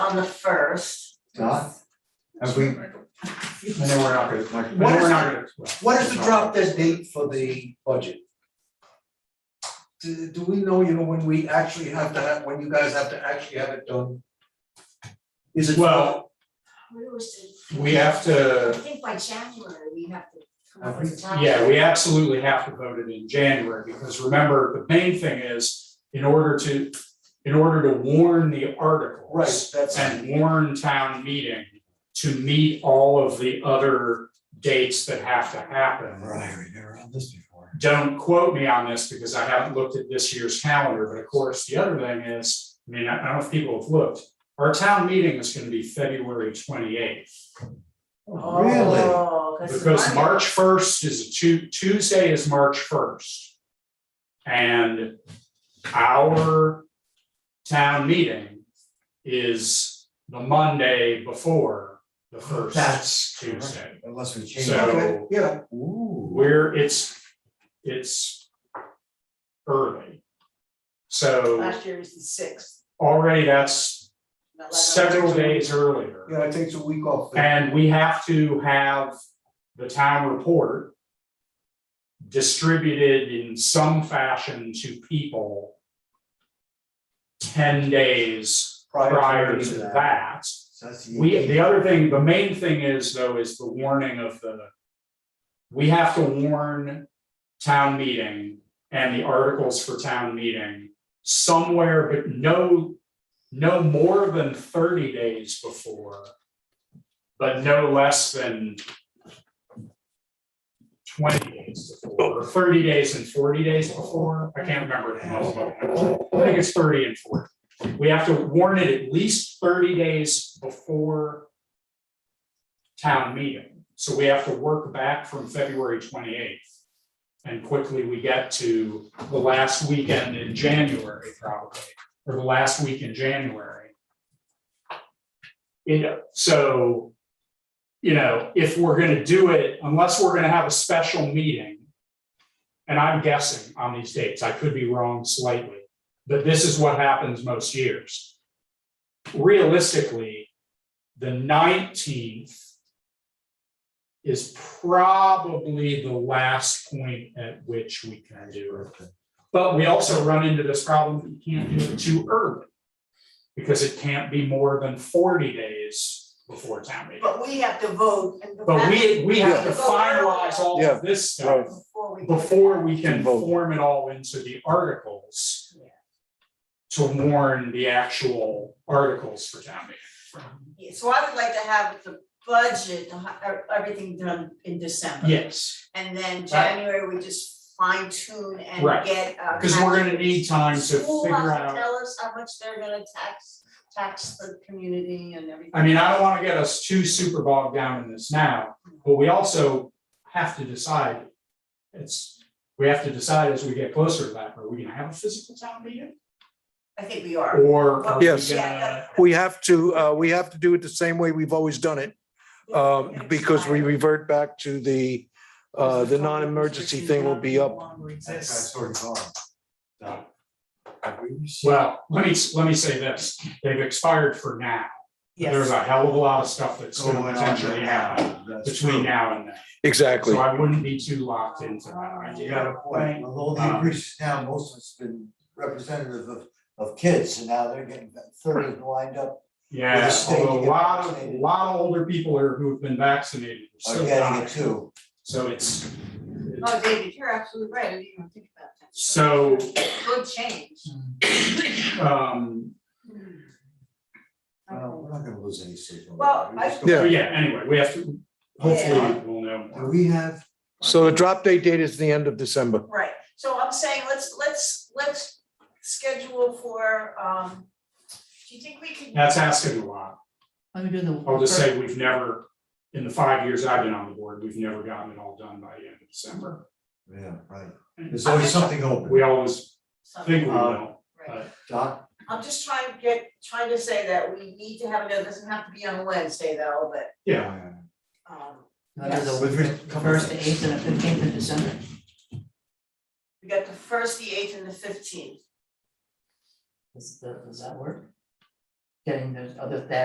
on the first. Not? Have we? I know we're not gonna, I know What is- we're not gonna. What is the drop dead date for the budget? Do, do we know, you know, when we actually have to have, when you guys have to actually have it done? Is it? Well- We were saying- We have I to, think by January, we have to come I up with a time. yeah, we absolutely have to vote it in January, because remember, the main thing is, in order to, in order to warn the articles. Right, that's, and warn town meeting to meet all of the other dates that have to happen. Right, we never had this before. Don't quote me on this because I haven't looked at this year's calendar, but of course, the other thing is, I mean, I I don't know if people have looked. Our town meeting is gonna be February twenty eighth, Really? Oh, cause it's because Monday. March first is a Tu- Tuesday is March first. And our town meeting is the Monday before the That's first Tuesday. Unless we change. So- okay, yeah, it. Ooh. where it's, it's early. So Last year was the sixth. already that's not like- several days earlier. yeah, it takes a week off. the- And we have to have the town report distributed in some fashion to people ten days prior to that. So that's the We, 18th. the other thing, the main thing is though, is the warning of the. We have to warn town meeting and the articles for town meeting somewhere, but no. No more than thirty days before. But no less than. Twenty days before, or thirty days and forty days before, I can't remember. the most of it. I think it's thirty and forty. We have to warn it at least thirty days before town meeting. So we have to work back from February twenty eighth. And quickly we get to the last weekend in January probably, or the last week in January. You know, so, you know, if we're gonna do it, unless we're gonna have a special meeting. And I'm guessing on these dates, I could be wrong slightly but this is what happens most years. Realistically, the nineteenth is probably the last point at which we can do it. But we also run into this problem, you can't do it too early. Because it can't be more than forty days before town meeting. But we have to vote and. the But we, we have to Yeah. finalize all Yeah. of this stuff Right. Before we. before we can Can vote. form it all into the articles. Yeah. To warn the actual articles for town meeting. Yeah, So I would like to have the budget, the hi- er, everything done in December. Yes, And then January, we just fine tune and Right. get. uh, because we're gonna need time to School figure has to out, tell us how much they're gonna tax, tax the community and everything. I mean, I don't wanna get us too super bogged down in this now, but we also have to decide. It's, we have to decide as we get closer to that, are we gonna have a physical town meeting? I think we are. Or are we Yes. gonna, We have to, uh, we have to do it the same way we've always done it, um, because we revert back to the, uh, the non-emergency thing will be up. That's what I sort of thought. No. Have we received- well, let me, let me say this, they've expired for now. Yes, There's a hell of a lot of stuff that's Going gonna on potentially right happen now. Oh, That's between true. now and then. Exactly. So I wouldn't be too locked into that You idea. got a point, with all uh, the increases now, most of it's been representative of, of kids, and now they're getting thirty lined up, With the Yeah, state although a getting lot of, a vaccinated. lot of older people are who've been vaccinated are are still getting it dying. too. So it's, no, Oh, David, you're absolutely right, I didn't even think about that. so, Good change. um, Well, we're not gonna lose any signal. Well, We're just I- Yeah. so gonna- yeah, anyway, we have to, hopefully we'll know Do more. we have? So the drop date date is the end of December. Right, so I'm saying, let's, let's, let's schedule for, um, do you think we can? That's asking a lot. Let me do the. I'll just say we've never, in the five years I've been on the board, we've never gotten it all done by the end of December. Yeah, right, there's always something open, We always think we Um, will. Right. Doc, I'm just trying to get, trying to say that we need to have, it it doesn't have to be on Wednesday though, but, Yeah, um, I'll do With the re- first, the eighth, and the fifteenth of December. we got the first, the eighth and the fifteenth. Does, does that work? Getting those other, that